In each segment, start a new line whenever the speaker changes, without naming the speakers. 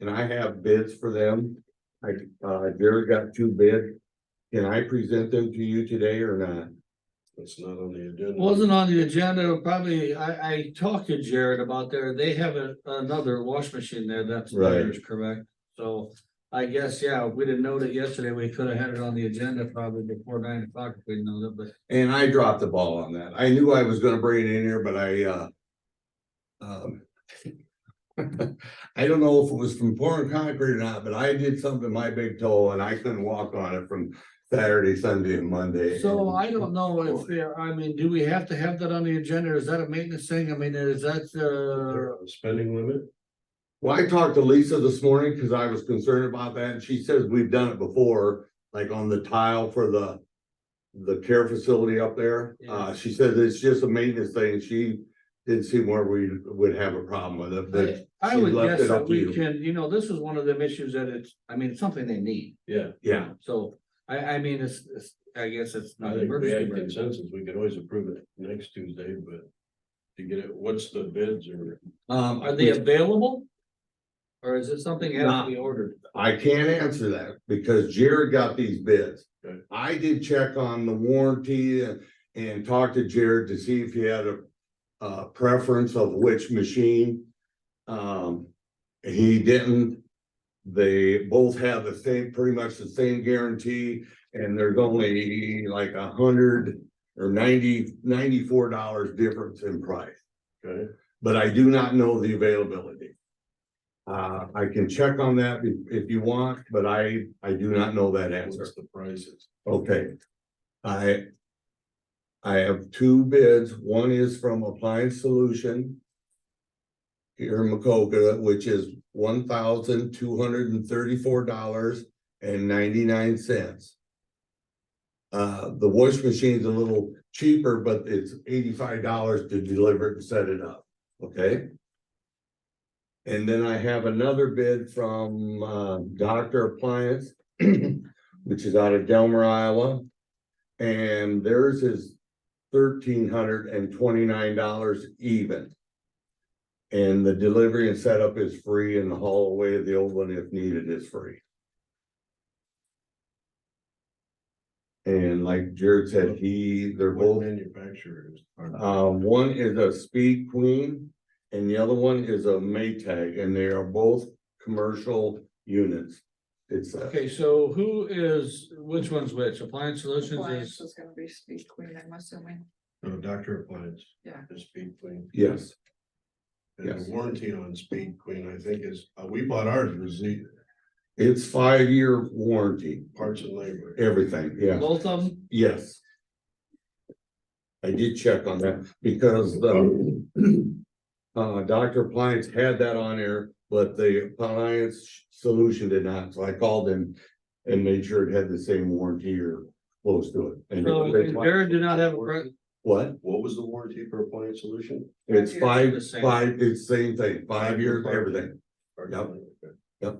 and I have bids for them. I, uh, Jared got two bids. Can I present them to you today or not?
It's not on the agenda.
Wasn't on the agenda, probably, I, I talked to Jared about there, they have a- another wash machine there, that's
Right.
theirs, correct? So I guess, yeah, if we didn't know that yesterday, we could have had it on the agenda probably before nine o'clock if we know that, but
And I dropped the ball on that. I knew I was gonna bring it in here, but I, uh. Um. I don't know if it was from pouring concrete or not, but I did something to my big toe and I couldn't walk on it from Saturday, Sunday and Monday.
So I don't know if, there- I mean, do we have to have that on the agenda? Is that a maintenance thing? I mean, is that, uh,
They're on Spending limit,
Well, I talked to Lisa this morning because I was concerned about that and she says we've done it before, like on the tile for the. The care facility up there. Uh, she says it's just a maintenance thing. She didn't seem where we would have a problem with it, but.
I- I
she
would
left
guess
it up
that
to
we
you.
can, you know, this is one of them issues that it's, I mean, it's something they need.
yeah.
Yeah,
So I, I mean, it's, it's, I guess it's
I
not
think we
emergency.
had
but-
consensus, we could always approve it next Tuesday, but to get it, what's the bids or?
um,
Are they available? Or is it something that has
Not-
to be ordered?
I can't answer that because Jared got these bids.
Okay.
I did check on the warranty and, and talked to Jared to see if he had a, uh preference of which machine. Um, he didn't. They both have the same, pretty much the same guarantee, and there's only like a hundred or ninety, ninety-four dollars difference in price
Okay,
but I do not know the availability. Uh, I can check on that if- if you want, but I, I do not know that answer.
what's the prices?
Okay. I. I have two bids. One is from Appliance Solution. Here in Macoka, which is one thousand two hundred and thirty-four dollars and ninety-nine cents. Uh, the wash machine's a little cheaper, but it's eighty-five dollars to deliver it and set it up, okay? And then I have another bid from, uh, Doctor Appliance. which is out of Delmer, Iowa. And theirs is thirteen hundred and twenty-nine dollars even. And the delivery and setup is free and the haul away of the old one if needed is free. And like Jared said, he, they're
What
both
manufacturers are,
uh, one is a Speed Queen and the other one is a Maytag and they are both commercial units. It's, uh,
Okay, so who is, which one's which? Appliance Solutions
Appliance
is,
is gonna be speed queen, I'm assuming.
no, Dr. Appliance.
Yeah.
The Speed Queen.
yes,
And
Yes.
the warranty on Speed Queen, I think is, uh, we bought ours, was the
it's five-year warranty,
parts and labor.
everything, yeah,
both of them?
yes. I did check on that because the uh, Dr. Appliance had that on there, but the Appliance solution did not, so I called them and made sure it had the same warranty or close to it. And
So
they-
Jared did not have a, pre-
What?
What was the warranty for Appliance Solution?
It's
Five
five,
years.
The same.
five, it's same thing, five
Five
years,
years.
everything, Yep.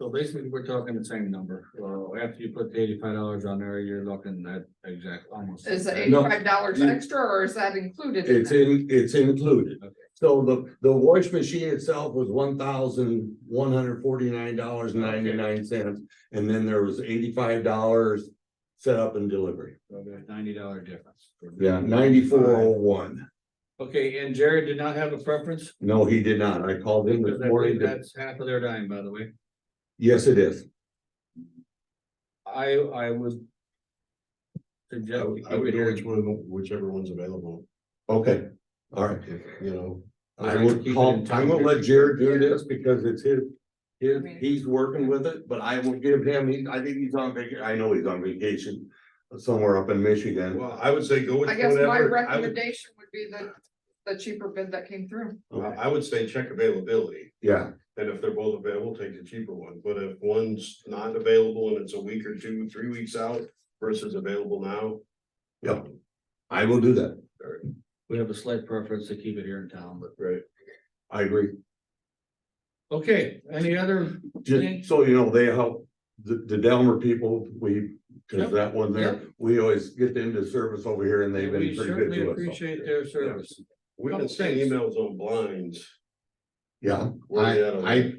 so basically we're talking the same number. Well, after you put the eighty-five dollars on there, you're looking at exact, almost.
Is it
exact-
No.
eighty-five dollars
You-
extra or is that included? in
it's
that?
in, it's included. So the, the wash machine itself was one thousand one hundred forty-nine dollars ninety-nine cents, and then there was eighty-five dollars setup and delivery,
Okay, Ninety dollar difference.
yeah, ninety-four oh one.
Okay, and Jared did not have a preference?
No, he did not, I called him this
Because I believe
morning, to-
That's half of their dime, by the way.
yes, it is,
I, I would.
I
Suggest. we
would I
keep
would
it
go
here.
which one, whichever one's available,
okay, all right.
if, you know.
I
I'd
would
keep it
call,
in
I'm gonna
time.
let Jared do this because it's his, his,
Okay.
he's working with it, but I will give him, he, I think he's on vacation, I know he's on vacation. Somewhere up in Michigan,
Well, I would say go with
I guess my
whatever, I would,
recommendation would be the, the cheaper bid that came through.
I would say check availability,
yeah,
and if they're both available, take the cheaper one, but if one's not available and it's a week or two, three weeks out versus available now.
Yep. I will do that,
We have a slight preference to keep it here in town, but,
Right,
I agree,
okay, any other, Okay.
just so you know, they help, the, the Delmer people, we, cause
Yep,
that one there, we always get them to service over here and they've
we
been pretty good
certainly
to us.
appreciate their service.
we can send emails on blinds.
Yeah,
Where they at on
I, I